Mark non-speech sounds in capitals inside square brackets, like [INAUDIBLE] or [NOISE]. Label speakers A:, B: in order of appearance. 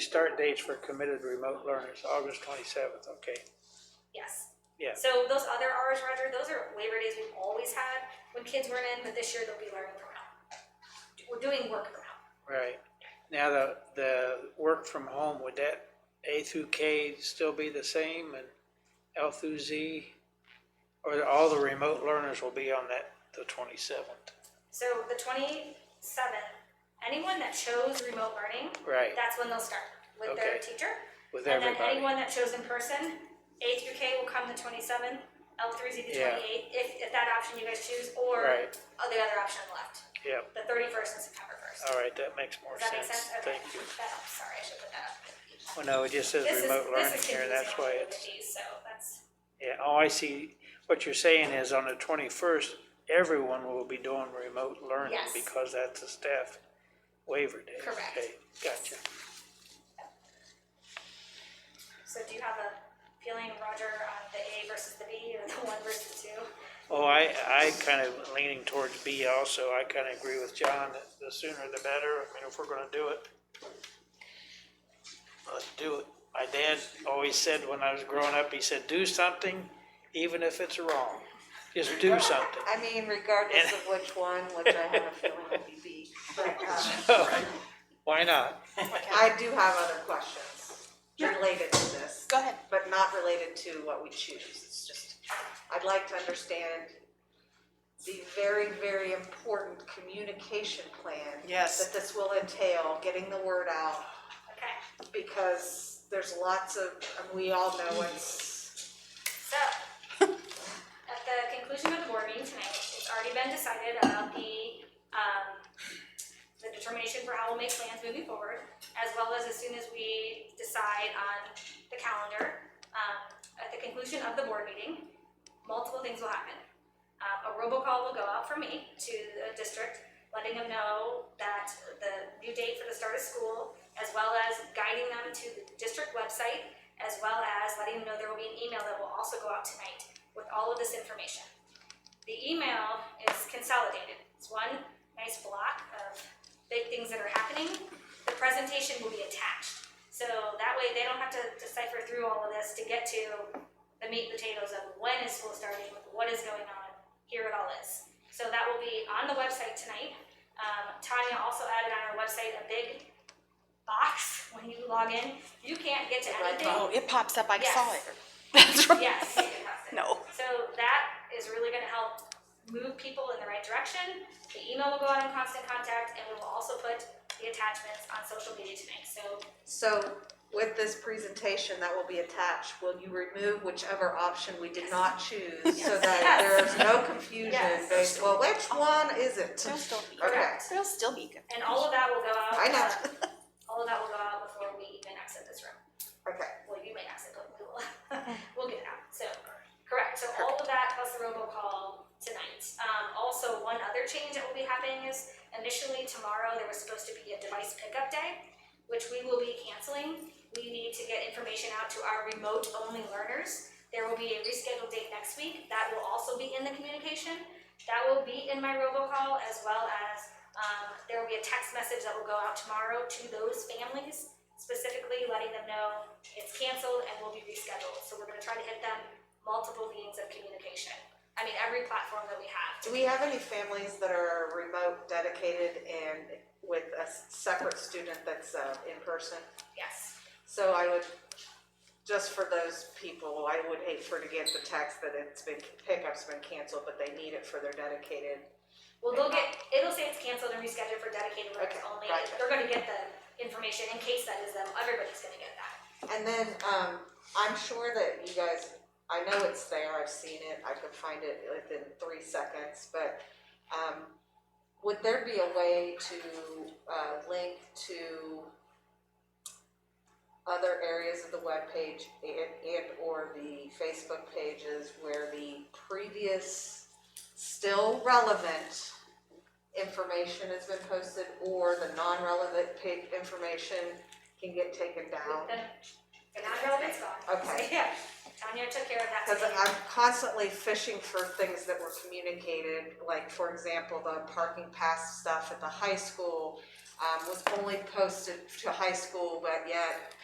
A: Start dates for committed remote learners, August twenty-seventh, okay,
B: Yes.
A: yeah.
B: So those other Rs, Roger, those are Labor Days we've always had when kids weren't in, but this year they'll be learning from home. We're doing work from home.
A: Right. Now, the, the work from home, would that A through K still be the same and L through Z? Or all the remote learners will be on that, the twenty-seventh?
B: So the twenty-seventh, anyone that chose remote learning,
A: Right,
B: that's when they'll start with their
A: Okay.
B: teacher.
A: with
B: And then
A: everybody.
B: anyone that chose in person, A through K will come the twenty-seventh, L through Z the
A: Yeah.
B: twenty-eighth, if, if that option you guys choose, or
A: Right.
B: uh, the other option left,
A: Yep,
B: the thirty-first and September first.
A: all right, that Oh, makes more
B: Does that make
A: sense,
B: sense? Okay,
A: thank you.
B: that helps. sorry, I should put that up.
A: Well, no, it just says
B: This is-
A: remote
B: this
A: learning
B: is
A: here,
B: confusing
A: that's
B: on
A: why
B: all of
A: it's,
B: these, So that's,
A: yeah, oh, I see. What you're saying is on the twenty-first, everyone will be doing remote learning
B: Yes.
A: because that's a staff waiver day.
B: Correct.
A: Okay, Gotcha.
B: so do you have a feeling, Roger, on the A versus the B or the one versus the two?
A: Oh, I, I kind of leaning towards B also. I kind of agree with John that the sooner the better. I mean, if we're gonna do it. Let's do it. My dad always said when I was growing up, he said, do something, even if it's wrong. Just do something. [LAUGHS]
C: I mean, regardless of which one, which I have a feeling will be B. But um,
A: Why not?
C: I do have other questions related to this.
D: Go ahead.
C: But not related to what we choose. It's just, I'd like to understand the very, very important communication plan.
D: Yes.
C: That this will entail, getting the word out,
B: Okay,
C: because there's lots of, and we all know it's,
B: so, [LAUGHS] at the conclusion of the board meeting tonight, it's already been decided about the, um, the determination for how we'll make plans moving forward, as well as as soon as we decide on the calendar. Um, at the conclusion of the board meeting, multiple things will happen. Um, a robocall will go out from me to the district, letting them know that the new date for the start of school, as well as guiding them to the district website, as well as letting them know there will be an email that will also go out tonight with all of this information. The email is consolidated. It's one nice block of big things that are happening. The presentation will be attached. So that way they don't have to decipher through all of this to get to the meat and potatoes of when is school starting, what is going on, here it all is. So that will be on the website tonight. Um, Tanya also added on our website a big box [LAUGHS] when you log in. You can't get to
C: red
B: anything.
D: Oh, it pops up. I saw
B: Yes.
D: it. [LAUGHS] That's right.
B: Yes.
D: No.
B: So that is really gonna help move people in the right direction. The email will go out in constant contact and we will also put the attachments on social media tonight, so
C: so with this presentation that will be attached, will you remove whichever option we did not choose? So that there is no confusion
B: Yes.
C: based, well, which one is it?
D: There'll still be.
C: Okay.
D: There'll still be good.
B: and all of that will go out.
C: I know.
B: uh, All of that will go out before we even exit this room.
C: Okay,
B: Well, you may exit, but we will, [LAUGHS] we'll get it out, so, correct, so all of that plus the robocall tonight. Um, also, one other change that will be happening is initially tomorrow, there was supposed to be a device pickup day, which we will be canceling. We need to get information out to our remote-only learners. There will be a rescheduled date next week, that will also be in the communication. That will be in my robocall as well as, um, there will be a text message that will go out tomorrow to those families, specifically letting them know it's canceled and will be rescheduled. So we're gonna try to hit them multiple means of communication. I mean, every platform that we have.
C: do we have any families that are remote dedicated and with a s- separate student that's uh, in person?
B: Yes.
C: So I would, just for those people, I would hate for to get the text that it's been, pickup's been canceled, but they need it for their dedicated.
B: Well, they'll get, it'll say it's canceled and rescheduled for dedicated learners
C: Okay,
B: only.
C: gotcha.
B: They're gonna get the information in case that is them. Everybody's gonna get that.
C: And then, um, I'm sure that you guys, I know it's there, I've seen it, I could find it within three seconds, but, um, would there be a way to, uh, link to other areas of the webpage and, and or the Facebook pages where the previous still relevant information has been posted or the non-relevant pa- information can get taken down?
B: The, the non-relevant's gone.
C: Okay.
B: [LAUGHS] Yeah. Tanya took care of that
C: Because
B: today.
C: I'm constantly fishing for things that were communicated, like for example, the parking pass stuff at the high school. um, was only posted to high school, but yet